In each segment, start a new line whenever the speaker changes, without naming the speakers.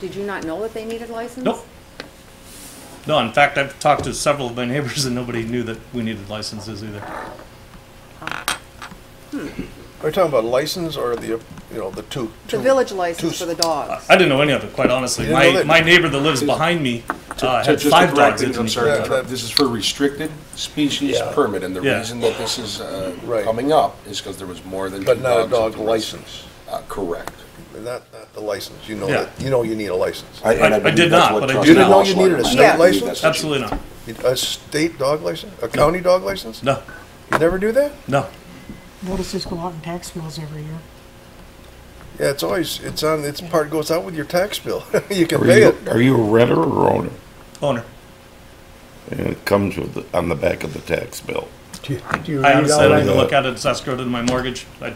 Did you not know that they needed a license?
Nope. No, in fact, I've talked to several of my neighbors and nobody knew that we needed licenses either.
Are you talking about license or the, you know, the two?
The
two-
village license
two-
for the dogs.
I didn't know any of it, quite honestly.
You didn't know
My,
that-
my neighbor that lives behind me uh,
To-
had
just to
five
correct
dogs.
it,
that
I'm
didn't
sorry, to
Yeah,
interrupt.
that-
this is for restricted species
Yeah.
permit, and the
Yeah.
reason that this is uh,
Right.
coming up is because there was more than
But
two
not a
dogs at
dog
the restaurant.
license,
Uh, Correct.
not, not the license, you know
Yeah.
that, you know you need a license.
I- I
believe
did
that's
not,
what
but I
Trustee
do now.
You didn't know you needed a
Walsh-
state
I believe
license?
that's what she-
Absolutely not.
A state dog license, a county dog license?
No,
You never do that?
no.
Notices go out in tax bills every year.
Yeah, it's always, it's on, it's part goes out with your tax bill, you can
Are
pay it.
you, are you a renter or owner?
Owner.
And it comes with, the- on the back of the tax bill.
Do you- do you
I
read
honestly
all
don't
that?
even look at it as escrow to my mortgage. I-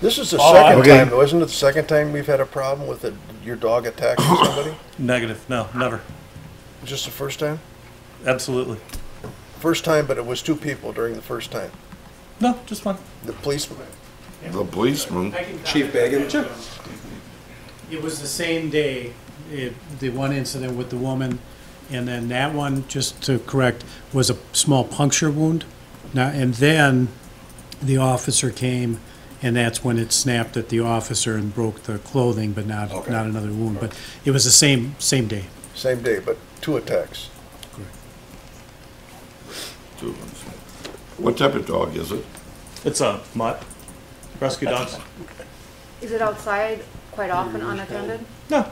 This is the
Oh,
second
okay.
time, though, isn't it the second time we've had a problem with it- your dog attacking somebody?
Negative, no, never.
Just the first time?
Absolutely.
First time, but it was two people during the first time.
No, just one.
The policeman,
The policeman,
I can
Chief
comment.
Bagan? Sure.
It was the same day, it- the one incident with the woman, and then that one, just to correct, was a small puncture wound. Now, and then the officer came, and that's when it snapped at the officer and broke the clothing, but not,
Okay.
not another wound. But it was the same, same day.
same day, but two attacks.
two ones. What type of dog is it?
It's a mutt. Rescue dogs.
Is it outside quite often unattended?
No.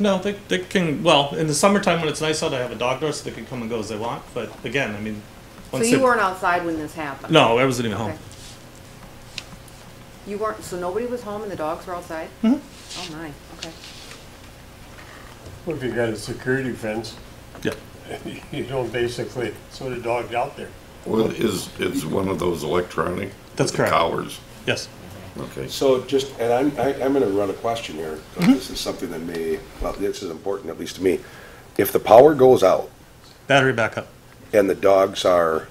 No, they, they can, well, in the summertime when it's nice out, I have a dog door so they can come and go as they want. But again, I mean,
So
once
you
they-
weren't outside when this happened?
No, I wasn't even
Okay.
home.
You weren't, so nobody was home and the dogs were outside? Mm-hmm. Oh, my, okay.
Well, If you got a security fence,
Yeah.
you don't basically throw the dog out there.
Well, is, it's one of those electronic?
That's
with the
correct.
Collars,
Yes.
okay.
So just, and I'm, I- I'm going to run a question here, 'cause this is something that may, well, this is important, at least to me. If the power goes out
Battery backup.
and the dogs are,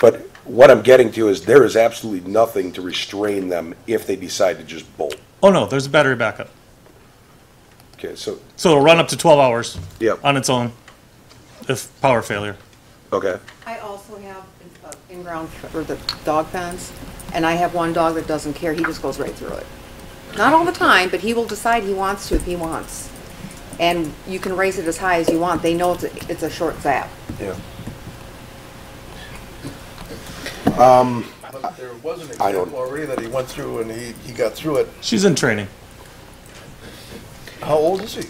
but what I'm getting to is there is absolutely nothing to restrain them if they decide to just bolt.
Oh, no, there's a battery backup.
Okay, so,
So it'll run up to 12 hours
Yep.
on its own if power failure.
okay.
I also have uh, in-ground for the dog pens, and I have one dog that doesn't care, he just goes right through it. Not all the time, but he will decide he wants to if he wants. And you can raise it as high as you want, they know it's, a- it's a short zap.
Yeah. But there was an
Um, I don't-
example already that he went through and he, he got through it.
She's in training.
How old is he?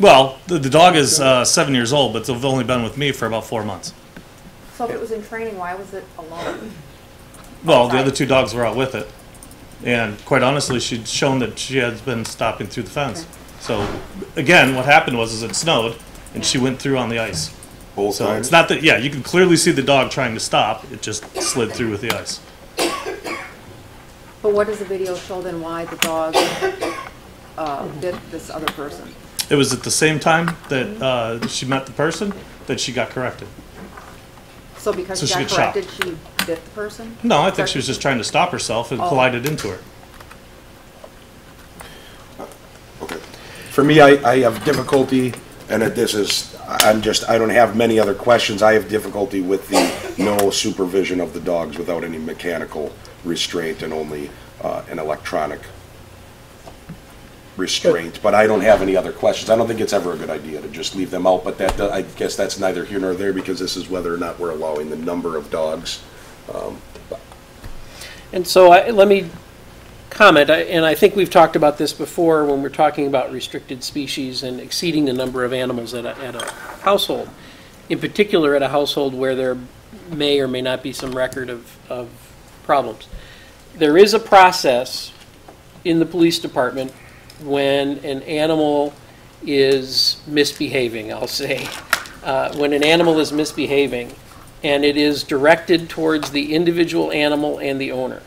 Well, the, the dog is uh, seven years old, but they've only been with me for about four months.
So if it was in training, why was it alone?
Well, the other two dogs were out with it. And quite honestly, she'd shown that she has been stopping through the fence. So again, what happened was is it snowed and she went through on the ice.
Both
So it's not that, yeah, you can clearly see the dog trying to stop. It just slid through with the ice.
But what does the video show then why the dog uh, bit this other person?
It was at the same time that uh, she met the person that she got corrected.
So because
So
she
she
got
got shot.
corrected, she bit the person?
No, I think she was just trying to stop herself and
Oh.
collided into her.
Okay. For me, I, I have difficulty, and that this is, I- I'm just, I don't have many other questions. I have difficulty with the no supervision of the dogs without any mechanical restraint and only uh, an electronic restraint. But I don't have any other questions. I don't think it's ever a good idea to just leave them out, but that, I guess that's neither here nor there because this is whether or not we're allowing the number of dogs.
And so I, let me comment, I- and I think we've talked about this before when we're talking about restricted species and exceeding the number of animals at a, at a household. In particular, at a household where there may or may not be some record of, of problems. There is a process in the police department when an animal is misbehaving, I'll say. Uh, When an animal is misbehaving, and it is directed towards the individual animal and the owner.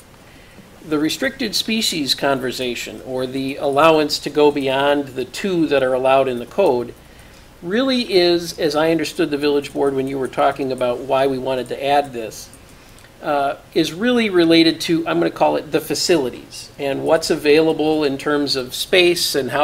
The restricted species conversation, or the allowance to go beyond the two that are allowed in the code, really is, as I understood the village board when you were talking about why we wanted to add this, uh, is really related to, I'm going to call it the facilities, and what's available in terms of space and how